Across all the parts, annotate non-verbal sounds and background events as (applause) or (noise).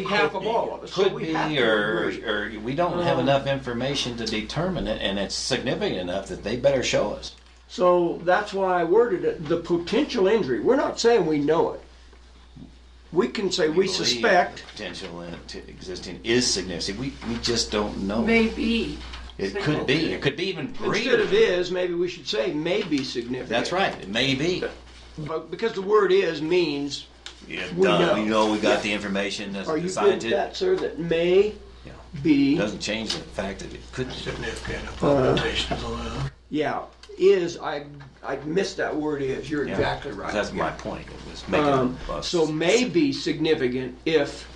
half of could all of us. So Could we be, have to or, agree. or we don't have enough information to determine it, and it's significant enough that they better show us. So that's why I worded it, the potential injury. We're not saying we know it. We can say we believe suspect, the potential in to existing is significant. We, we just don't know. Maybe. It could be. It could be even instead greater. of is, maybe we should say may be significant. That's right. It may be. But because the word is means, Yeah, We done. know. We know we got the information. That's are you good with scientific. that, sir, that may Yeah. be, Doesn't change the fact that it could. Significant abominations allowed. yeah, is, I, I missed that word is. You're Yeah. exactly right. That's my Yeah. point. It was making Um, us. So may be significant if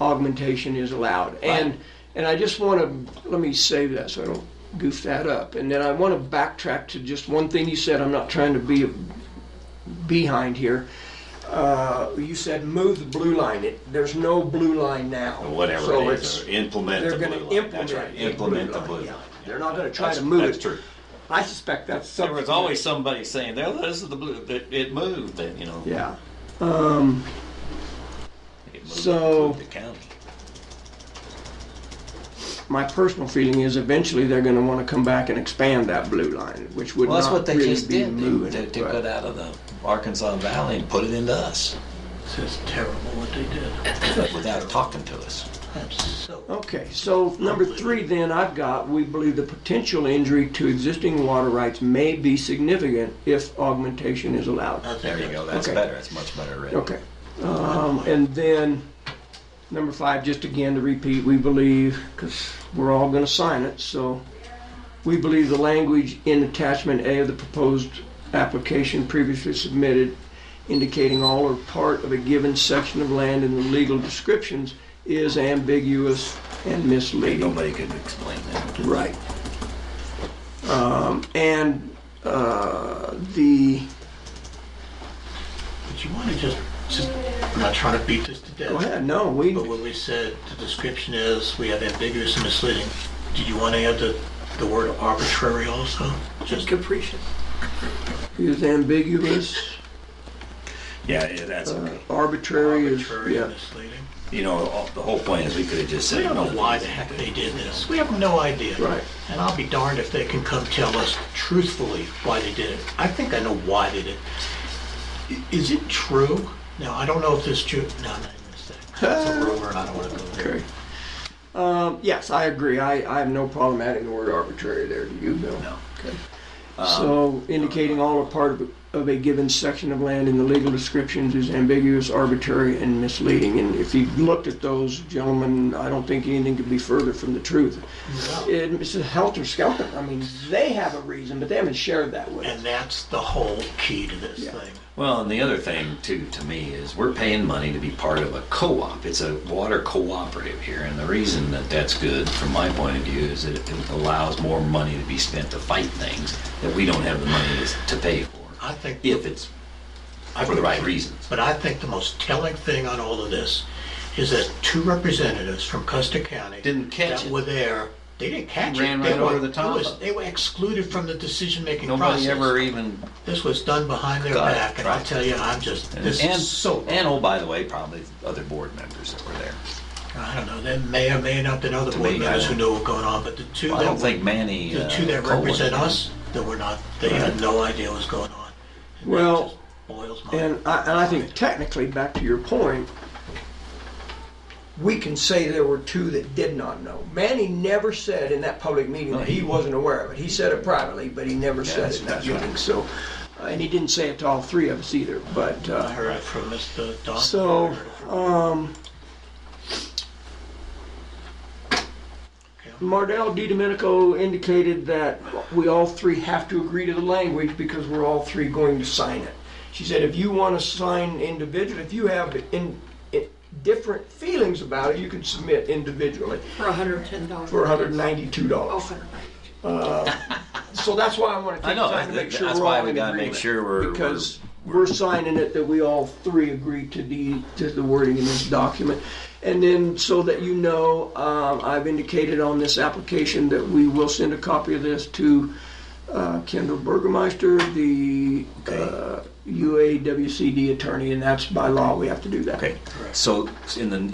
augmentation is allowed. And, and I just want to, let me save that so I don't goof that up. And then I want to backtrack to just one thing you said. I'm not trying to be behind here. Uh, You said move the blue line. It- There's no blue line now. whatever So it is, it's- or implement They're the going blue to line. That's implement. right. the Implement the blue line, yeah. line. They're not going to try That's- to move it. that's true. I suspect that's There something. was always somebody saying, "There, this is the blue." That it moved. That you know. Yeah. It moved So- included the county. my personal feeling is eventually they're going to want to come back and expand that blue line, which would Well, that's not what they really just be did. moving. They, they it, took but- it out of the Arkansas Valley and put it into us It's just terrible what they did. (coughs) without talking to us. That's so. Okay, so number three, then I've got we believe the potential injury to existing water rights may be significant if augmentation is allowed. That's There you go. That's Okay. better. That's much better written. Okay, um, and then number five, just again to repeat, we believe because we're all going to sign it, so we believe the language in attachment A of the proposed application previously submitted indicating all or part of a given section of land in the legal descriptions is ambiguous and misleading. Nobody could explain that. Right. Um, and uh, the But you wanna just, just, I'm not trying to beat this to death. go ahead. No, we But when we said the description is, we have ambiguous and misleading, do you want to add the, the word arbitrary also? Just capricious. is ambiguous, Yeah, yeah, that's okay. arbitrary is Arbitrary and yeah. misleading. You know, all- the whole point is we could have just said. We don't know no. why the heck they did this. We have no idea. Right. And I'll be darned if they can come tell us truthfully why they did it. I think I know why they did it. I- Is it true? Now, I don't know if this true. No, I'm not even gonna say. It's Ah. a rumor and I don't want to go there. Okay. Um, yes, I agree. I, I have no problem adding the word arbitrary there. Do you, Bill? No. Um, Okay. So indicating all or part of a, of a given section of land in the legal descriptions is ambiguous, arbitrary, and misleading. And if you looked at those, gentlemen, I don't think anything could be further from the truth. It- It's a helter skelter. I mean, they have a reason, but they haven't shared that with us. And that's the whole key to this Yeah. thing. Well, and the other thing too, to me, is we're paying money to be part of a co-op. It's a water cooperative here, and the reason that that's good, from my point of view, is that it allows more money to be spent to fight things that we don't have the money to- to pay for, I think. if it's I for the right think- reasons. But I think the most telling thing on all of this is that two representatives from Custer County. Didn't catch that it. Were there, they didn't catch it. Ran They right were- over the top it was- of it. They were excluded from the decision-making process. Nobody ever even This was done behind their Got it, back, and I'll right. tell you, I'm just, and this is so, and oh by the way, probably other board members that were there. I don't know, there may or may not been other To board me, members I- who knew what was going on, but the two I don't that, think were- Manny. the uh, two that Cohen- represent us, that were not, they had Right. no idea what was going on. And that Well, just Boils my. And I, and I think technically, back to your point, we can say there were two that did not know. Manny never said in that public meeting that he wasn't aware of it. He said it privately, but he never said that's- it in that that's right. meeting, so. uh, And he didn't say it to all three of us either, but, I uh, heard it from Mr. Don. So, um, Mardell Di Domenico indicated that we all three have to agree to the language because we're all three going to sign it. She said, if you want to sign individually, if you have in, in different feelings about it, you can submit individually For hundred and ten dollars. Oh, for $192. So that's why I want to I take know, time to make that- sure that's we're why all we in gotta make agreement, sure we're- Because we're signing it that we all three agree to the, to the wording in this document. And then, so that you know, um, I've indicated on this application that we will send a copy of this to uh, Kendall Burgermeister, the, uh, UAWCD attorney, and that's by law, we have to do that. Okay, so in the,